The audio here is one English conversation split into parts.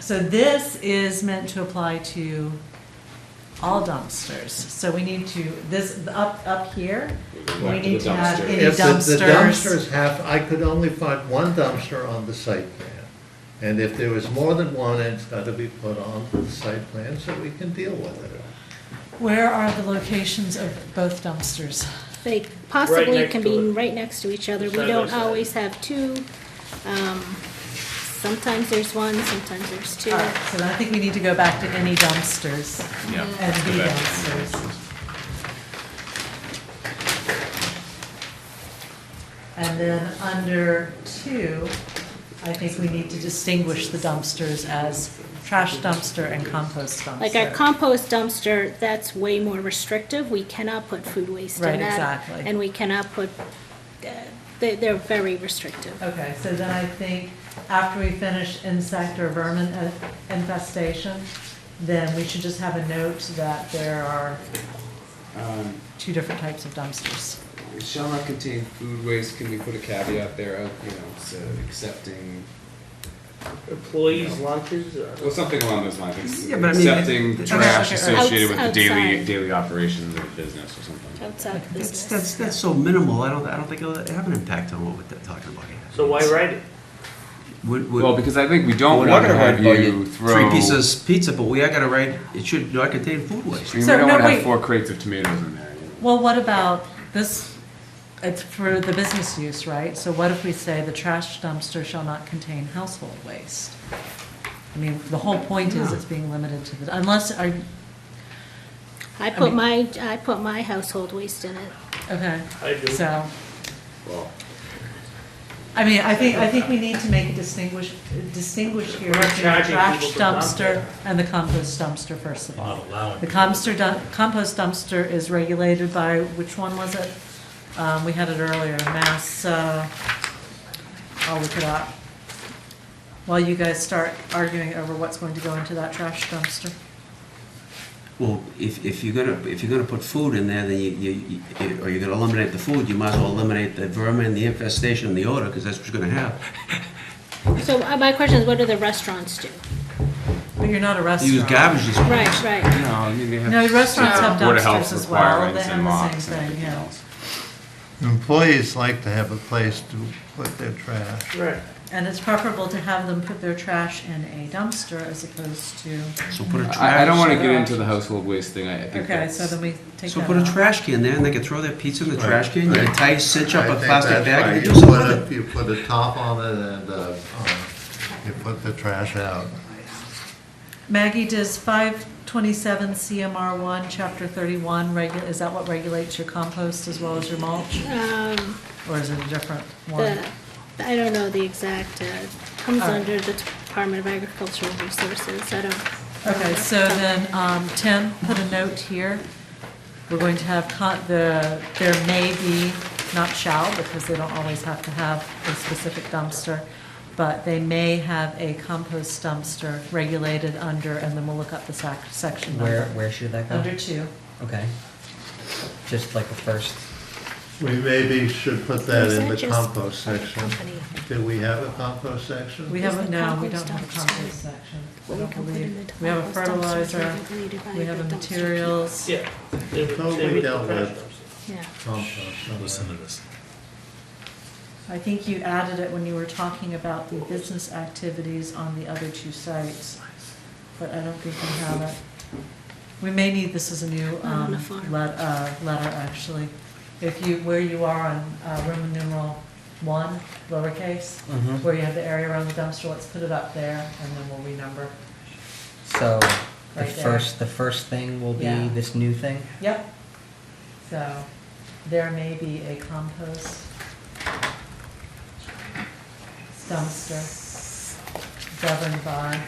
So this is meant to apply to all dumpsters. So we need to, this, up, up here, Back we to need the to have dumpster. any If the- the dumpsters. dumpsters have, I could only find one dumpster on the site plan. And if there is more than one, it's gotta be put on the site plan so we can deal with it. Where are the locations of both dumpsters? They possibly next can to be it. right next to each other. We Side by don't side. always have two. Um, Sometimes there's one, sometimes there's two. All right, so then I think we need to go back to any dumpsters Yeah. and Go the back. dumpsters. And then under two, I think we need to distinguish the dumpsters as trash dumpster and compost dumpster. Like our compost dumpster, that's way more restrictive. We cannot put food waste Right, in that. exactly. And we cannot put, uh, they- they're very restrictive. Okay, so then I think after we finish insect or vermin uh, infestation, then we should just have a note that there are Um, two different types of dumpsters. it shall not contain food waste, can we put a caveat there of, you know, so accepting, Employees' lunches, uh, well, something along those lines, Yeah, but I mean, accepting it- trash okay, associated with the daily, outside. daily operations of the business or something. Outside of That's, business. that's, that's so minimal, I don't, I don't think it'll have an impact on what we're talking about here. so why write it? Would, would, Well, because I think we don't we're not want to gonna write have about you you throw. three pieces of pizza, but we are gonna write, it should not contain food I waste. mean, we So, don't no, want to wait. have four crates of tomatoes in there. you know. Well, what about this, it's for the business use, right? So what if we say the trash dumpster shall not contain household waste? I mean, the whole point is it's being limited to the, unless, are, I put my, I put my household waste in it. okay, I do. so. Well, I mean, I think, I think we need to make a distinguish, distinguish here We're not between the charging trash people to dump dumpster it. and the compost dumpster, first of all. The compost dump, compost dumpster is regulated by, which one was it? Um, we had it earlier, Mass, uh, I'll look it up. While you guys start arguing over what's going to go into that trash dumpster. Well, if, if you're gonna, if you're gonna put food in there, then you, you, you- or you're gonna eliminate the food, you might as well eliminate the vermin, the infestation, and the odor, because that's what you're gonna have. So uh, my question is, what do the restaurants do? But you're not a You restaurant. Use garbage as Right, right. No, I mean, they have. No, restaurants have Board of Health dumpsters as well, they requirements have and the locks same and thing, everything yeah. else. Employees like to have a place to put their trash. Right. And it's preferable to have them put their trash in a dumpster as opposed to, So put a trash. I, I don't want to get into the household waste thing, I I think okay, so that's. then we take So that put a out. trash can there, and they can throw their pizza in the Right, trash can, you right. can tie, cinch up I a think plastic that's right. bag, and You do something put with a- it. You put a top on it and, uh, um, you put the trash out. Maggie, does five twenty-seven CMR one, chapter thirty-one, regu, is that what regulates your compost as well as your mulch? Um, Or is it a different one? the, I don't know the exact, uh, comes All right. under the Department of Agricultural Resources. I don't. Okay, so then, um, Tim, put a note here. We're going to have con, the, there may be, not shall, because they don't always have to have a specific dumpster, but they may have a compost dumpster regulated under, and then we'll look up the sac, section Where, number. where should that go? Under two. Okay. Just like the first, We maybe should put that Is in the that just- compost section. Do we have a compost section? We Is haven't, the no, we compost don't have a dumpster- compost section. I What we don't can put in believe. the We have a compost dumpster is fertilizer, regulated by we have a the dumpster materials. Yeah. They would- Totally they would dealt with. professionals. Yeah. Compost. okay. I think you added it when you were talking about the business activities on the other two sites, but I don't think we have it. We may need this as a new, Not on um, a farm. let, uh, letter, actually. If you, where you are on, uh, Roman numeral one, lowercase, Mhm. where you have the area around the dumpster, let's put it up there, and then we'll renumber. so the Right there. first, the first thing will be Yeah. this new thing? Yep. So there may be a compost dumpster governed by,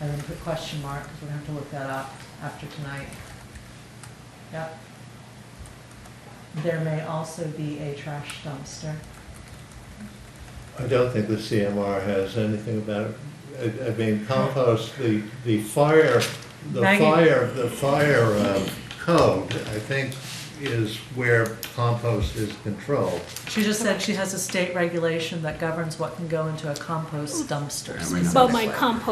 and then put question mark, because we're gonna have to look that up after tonight. Yep. There may also be a trash dumpster. I don't think the CMR has anything about, it. I I mean, compost, the, the fire, the Maggie. fire, the fire uh, code, I think, is where compost is controlled. She just said she has a state regulation that governs what can go into a compost dumpster. I mean, But my compost